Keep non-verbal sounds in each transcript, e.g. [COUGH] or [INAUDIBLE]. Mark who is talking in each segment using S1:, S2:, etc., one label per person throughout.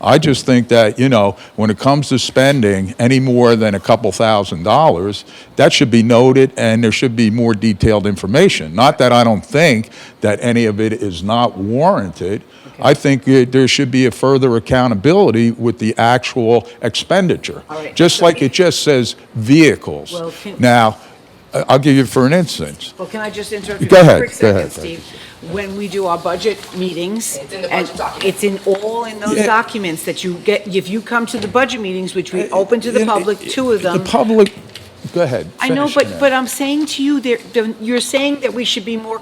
S1: I just think that, you know, when it comes to spending any more than a couple thousand dollars, that should be noted and there should be more detailed information. Not that I don't think that any of it is not warranted. I think it- there should be a further accountability with the actual expenditure.
S2: All right.
S1: Just like it just says vehicles.
S2: Well, can-
S1: Now, I- I'll give you for an instance.
S2: Well, can I just interrupt you
S1: Go
S2: for a
S1: ahead,
S2: quick
S1: go
S2: second,
S1: ahead,
S2: Steve? When we do our budget meetings.
S3: It's in the
S2: and
S3: budget document.
S2: It's in all in those
S1: Yeah.
S2: documents that you get, if you come to the budget meetings, which we open to the
S1: Uh, You know,
S2: public, two of
S1: The
S2: them.
S1: public, go ahead.
S2: I know,
S1: finish,
S2: but,
S1: Annette.
S2: but I'm saying to you, there, the- you're saying that we should be more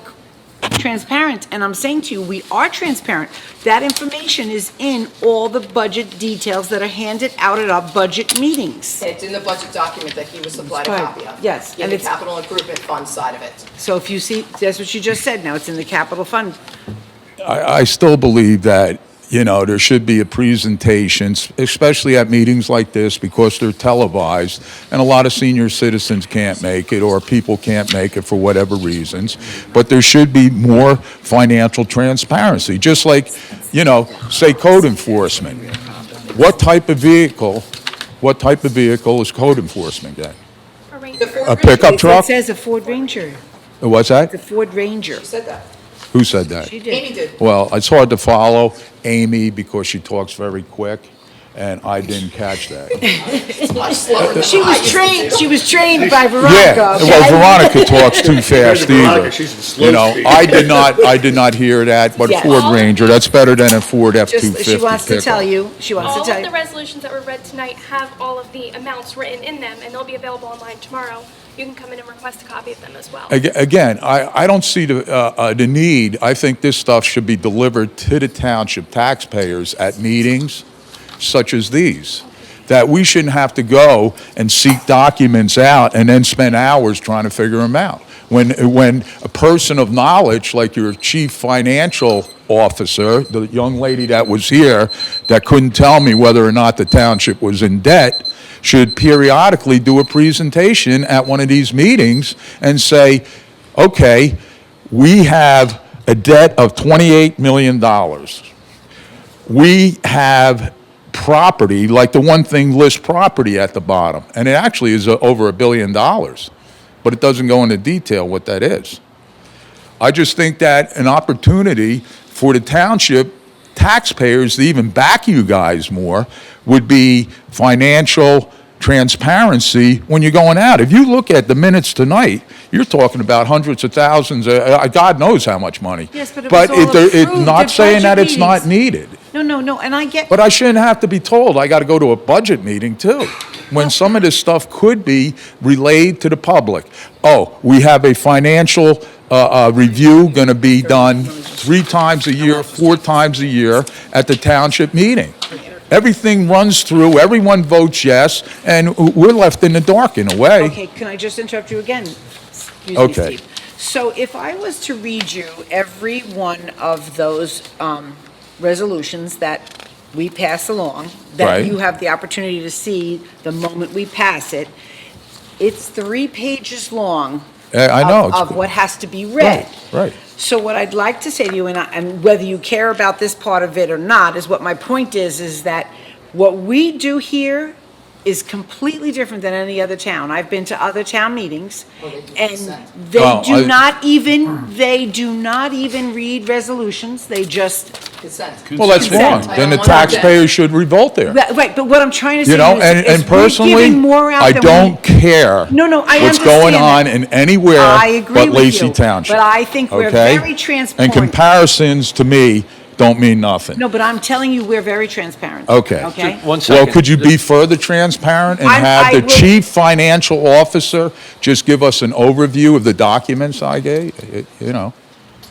S2: transparent, and I'm saying to you, we are transparent. That information is in all the budget details that are handed out at our budget meetings.
S3: It's in the budget document that he was supplied a
S2: Right,
S3: copy of.
S2: yes,
S3: In
S2: and
S3: the
S2: it's-
S3: capital improvement fund side of it.
S2: So if you see, that's what you just said, now it's in the capital fund.
S1: I, I still believe that, you know, there should be a presentation, s- especially at meetings like this, because they're televised, and a lot of senior citizens can't make it, or people can't make it for whatever reasons. But there should be more financial transparency, just like, you know, say code enforcement. What type of vehicle, what type of vehicle is code enforcement getting?
S3: The Ford
S1: A
S3: Ranger,
S1: pickup
S3: you
S1: truck?
S2: It says a Ford Ranger,
S1: What's
S2: the
S1: that?
S2: Ford Ranger.
S3: Said that.
S1: Who said that?
S2: She did.
S3: Amy did.
S1: Well, it's hard to follow Amy because she talks very quick, and I didn't catch
S2: [LAUGHS]
S1: that.
S3: It's much slower than
S2: She
S3: I used
S2: was
S3: to
S2: trained,
S3: do.
S2: she was trained by
S1: Yeah,
S2: Veronica,
S1: well,
S2: okay?
S1: Veronica talks too fast
S4: Veronica,
S1: either.
S4: she's a slow
S1: You know,
S4: speaker.
S1: I did not, I did not hear that, but
S2: Yes.
S1: Ford Ranger, that's better than a Ford
S2: Just,
S1: F-250
S2: she wants to tell
S1: pickup.
S2: you, she wants
S5: All
S2: to
S5: of
S2: tell
S5: the
S2: you.
S5: resolutions that were read tonight have all of the amounts written in them, and they'll be available online tomorrow. You can come in and request a copy of them as well.
S1: Aga- Again, I, I don't see the, uh, uh, the need, I think this stuff should be delivered to the township taxpayers at meetings such as these, that we shouldn't have to go and seek documents out and then spend hours trying to figure them out. When, when a person of knowledge, like your chief financial officer, the young lady that was here, that couldn't tell me whether or not the township was in debt, should periodically do a presentation at one of these meetings and say, okay, we have a debt of $28 million. We have property, like the one thing lists property at the bottom, and it actually is uh, over a billion dollars, but it doesn't go into detail what that is. I just think that an opportunity for the township taxpayers to even back you guys more would be financial transparency when you're going out. If you look at the minutes tonight, you're talking about hundreds of thousands, uh, uh, God knows how much money.
S2: Yes, but it was all
S1: it- there- it-
S2: approved
S1: Not
S2: at
S1: saying that
S2: budget
S1: it's not
S2: meetings.
S1: needed.
S2: No, no, no, and I get,
S1: But I shouldn't have to be told I got to go to a budget meeting too, when some of this stuff could be relayed to the public. Oh, we have a financial uh, uh, review going to be done three times a year, four times a year at the township meeting. Everything runs through, everyone votes yes, and we're left in the dark in a way.
S2: okay, can I just interrupt you again? Excuse me,
S1: Okay.
S2: Steve. So if I was to read you every one of those um, resolutions that we pass along, that
S1: Right.
S2: you have the opportunity to see the moment we pass it, it's three pages long
S1: Uh, I know.
S2: of-
S1: it's-
S2: of what has to be read.
S1: Right,
S2: So what I'd like to say to you, and, I, and whether you care about this part of it or not, is what my point is, is that what we do here is completely different than any other town. I've been to other town meetings, and they
S1: Well, Oh, I-
S2: do not even, they do not even read resolutions, they just,
S3: Consent.
S1: well, that's wrong.
S2: Consent.
S1: Then the
S3: I don't want that.
S1: taxpayers should revolt there.
S2: That- right, but what I'm trying to say
S1: You know, and,
S2: is,
S1: and
S2: is we're
S1: personally,
S2: giving more out
S1: I
S2: than we-
S1: don't care.
S2: No, no, I
S1: What's going
S2: understand
S1: on
S2: that.
S1: in anywhere
S2: I agree
S1: but
S2: with
S1: Lacey
S2: you,
S1: Township.
S2: but I think we're
S1: okay?
S2: very transparent.
S1: And comparisons to me don't mean nothing.
S2: No, but I'm telling you, we're very transparent.
S1: Okay.
S2: Okay?
S4: One second.
S1: Well, could you be further transparent and
S2: I'm-
S1: have
S2: I
S1: the
S2: will-
S1: chief financial officer just give us an overview of the documents I gave, eh, you know,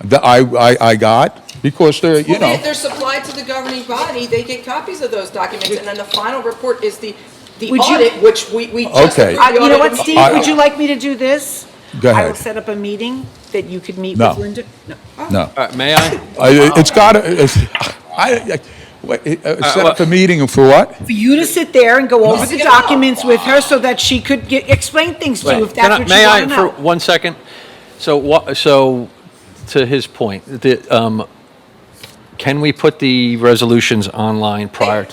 S1: that I, I, I got? Because they're, you
S3: Well,
S1: know.
S3: they- they're supplied to the governing body, they get copies of those documents, and then the final report is the, the
S2: Would you-
S3: audit, which we, we just.
S1: Okay.
S3: approved
S2: I-
S3: the
S2: You know
S3: audit
S2: what,
S3: of-
S2: Steve,
S1: I-
S2: would you like me to do this?
S1: Go
S2: I will
S1: ahead.
S2: set up a meeting that you could meet
S1: No.
S2: with Linda. No.
S1: No.
S4: Uh, May I?
S1: [LAUGHS] I- It's got, to I, I, I
S4: Uh,
S1: set up a meeting for what?
S2: For you to sit there and go over the
S3: No.
S2: documents with her so that she could get, explain things to you if
S4: Wait, can
S2: that's
S4: I-
S2: what you want to
S4: May I, for
S2: know.
S4: one second? So, wha- so, to his point, the, um, can we put the resolutions online prior to?